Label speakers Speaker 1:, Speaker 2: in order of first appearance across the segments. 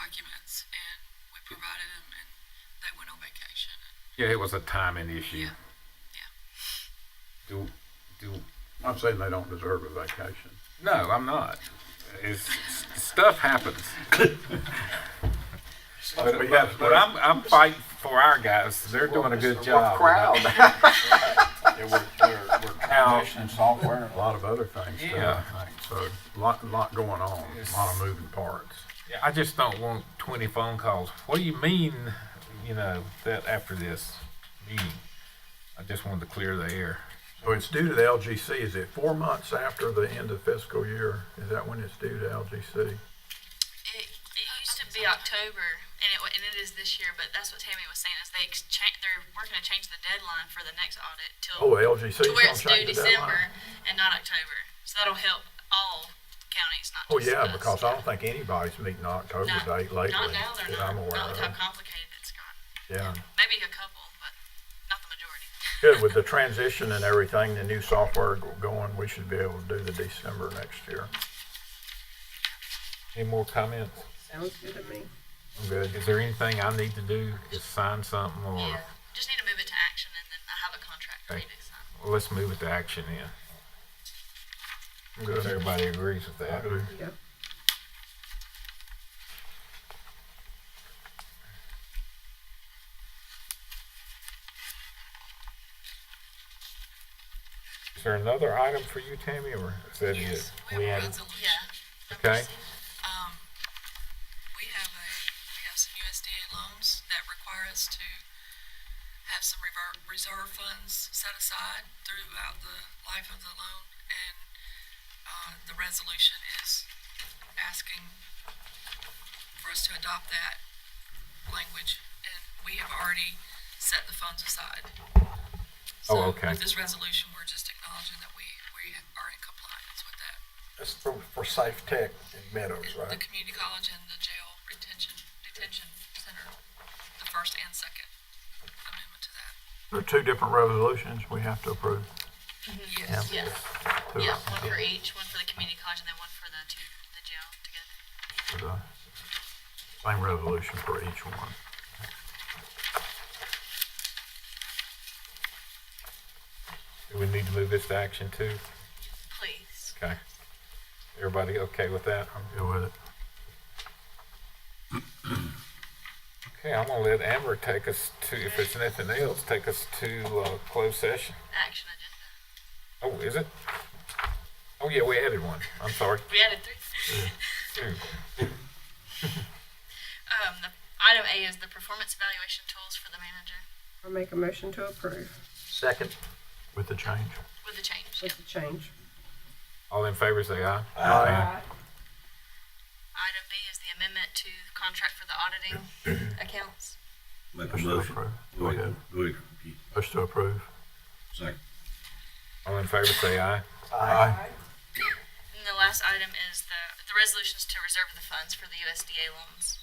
Speaker 1: documents and we provided them and they went on vacation.
Speaker 2: Yeah, it was a timing issue.
Speaker 1: Yeah.
Speaker 2: Do, do,
Speaker 3: I'm saying they don't deserve a vacation.
Speaker 2: no, I'm not. It's, stuff happens. But,
Speaker 3: We have-
Speaker 2: but I'm, I'm fighting for our guys. They're doing a good job.
Speaker 4: Yeah, we're, we're, we're
Speaker 2: Now-
Speaker 4: commissioning software and
Speaker 3: A lot of other things too, I
Speaker 2: Yeah.
Speaker 3: think. So lot, lot going on, a lot of moving parts.
Speaker 2: Yeah, I just don't want twenty phone calls. What do you mean, you know, that after this meeting? I just wanted to clear the air.
Speaker 3: So it's due to the LGC, is it four months after the end of fiscal year? Is that when it's due to LGC?
Speaker 5: It, it used to be October, and it wa- and it is this year. But that's what Tammy was saying is they exchange, they're we're going to change the deadline for the next audit till
Speaker 3: Oh, LGC's
Speaker 5: to where
Speaker 3: gonna
Speaker 5: it's due
Speaker 3: change the deadline.
Speaker 5: December and not October. So that'll help all counties, not
Speaker 3: Oh,
Speaker 5: just
Speaker 3: yeah,
Speaker 5: us.
Speaker 3: because I don't think anybody's meeting October
Speaker 5: Not-
Speaker 3: date lately.
Speaker 5: Not now they're
Speaker 3: that I'm
Speaker 5: not.
Speaker 3: aware
Speaker 5: Not with how
Speaker 3: of.
Speaker 5: complicated it's gotten.
Speaker 3: Yeah.
Speaker 5: Maybe a couple, but not the majority.
Speaker 3: Good, with the transition and everything, the new software go- going, we should be able to do the December next year.
Speaker 2: Any more comments?
Speaker 6: Sounds good to me.
Speaker 3: I'm good.
Speaker 2: Is there anything I need to do? Is sign something or?
Speaker 5: Yeah. Just need to move it to action, and then I have a contract for you
Speaker 2: Okay.
Speaker 5: to sign.
Speaker 2: Well, let's move it to action then.
Speaker 3: I'm
Speaker 2: If
Speaker 3: good.
Speaker 2: everybody agrees with that.
Speaker 6: Yep.
Speaker 2: Is there another item for you, Tammy, or is that it?
Speaker 1: Yes, we have a
Speaker 2: added-
Speaker 1: resolution.
Speaker 5: Yeah.
Speaker 2: Okay.
Speaker 1: Um, we have a, we have some USDA loans that require us to have some rever reserve funds set aside throughout the life of the loan. And, uh, the resolution is asking for us to adopt that language. And we have already set the funds aside. So
Speaker 2: Oh, okay.
Speaker 1: With this resolution, we're just acknowledging that we, we are in compliance with that.
Speaker 4: That's for, for Safe Tech in Meadows,
Speaker 1: The community college and the jail retention, detention center, the first and second amendment to that.
Speaker 3: There are two different resolutions we have to approve.
Speaker 1: Yes.
Speaker 5: Mm-hmm. Yes.
Speaker 3: Two
Speaker 5: Yeah,
Speaker 3: of
Speaker 5: one
Speaker 3: them
Speaker 5: for each, one for the community college, and then one for the two, the jail together.
Speaker 3: for the Same resolution for each one.
Speaker 2: Do we need to move this to action too?
Speaker 5: Please.
Speaker 2: Okay. Everybody okay with that?
Speaker 3: I'm good with it.
Speaker 2: Okay, I'm gonna let Amber take us to, if it's nothing else, take us to, uh, closed session.
Speaker 5: Action agenda.
Speaker 2: Oh, is it? Oh, yeah, we added one. I'm sorry.
Speaker 5: We added three.
Speaker 2: Two.
Speaker 5: Um, the, item A is the performance evaluation tools for the manager
Speaker 6: I'll make a motion to approve
Speaker 4: Second.
Speaker 3: With the change.
Speaker 5: with the change.
Speaker 6: with the change.
Speaker 2: All in favor, say aye.
Speaker 5: Item B is the amendment to the contract for the auditing accounts.
Speaker 7: Make a
Speaker 3: Motion to
Speaker 7: motion.
Speaker 3: approve.
Speaker 7: Go
Speaker 3: Go
Speaker 7: ahead.
Speaker 3: ahead.
Speaker 7: Go ahead, Pete.
Speaker 3: Motion to approve.
Speaker 7: Second.
Speaker 2: All in favor, say aye.
Speaker 3: Aye.
Speaker 5: And the last item is the, the resolutions to reserve the funds for the USDA loans.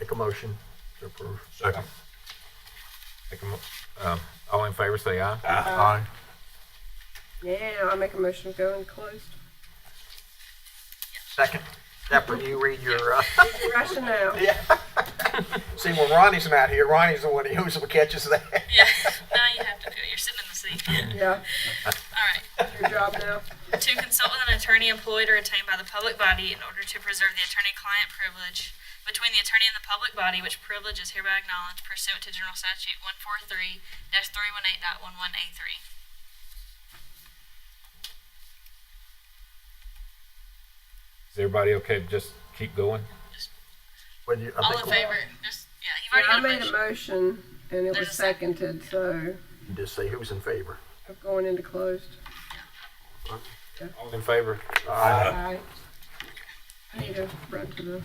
Speaker 3: Make a motion to approve. Second.
Speaker 2: Take a mo- um, all in favor, say aye.
Speaker 3: Aye.
Speaker 6: Yeah, I'll make a motion to go in closed.
Speaker 4: Second. After you read your, uh,
Speaker 6: Rationale.
Speaker 4: see, when Ronnie's not here, Ronnie's the one who usually catches that.
Speaker 5: Yeah, now you have to do it. You're sitting in the seat.
Speaker 6: Yeah,
Speaker 5: All right.
Speaker 6: your job now.
Speaker 5: to consult with an attorney employed or retained by the public body in order to preserve the attorney-client privilege between the attorney and the public body, which privilege is hereby acknowledged pursuant to General Statute one four three dash three one eight dot one one A three.
Speaker 2: Is everybody okay to just keep going?
Speaker 4: When you, I
Speaker 5: All
Speaker 4: think
Speaker 5: in
Speaker 4: we
Speaker 5: favor? Just yeah, you've
Speaker 6: Yeah, I
Speaker 5: already
Speaker 6: made
Speaker 5: got
Speaker 6: a
Speaker 5: a motion.
Speaker 6: motion and it was
Speaker 5: There's a second.
Speaker 6: seconded, so
Speaker 4: can just say who's in favor.
Speaker 6: I'm going into closed.
Speaker 2: All in favor?
Speaker 6: Aye. I need to run to the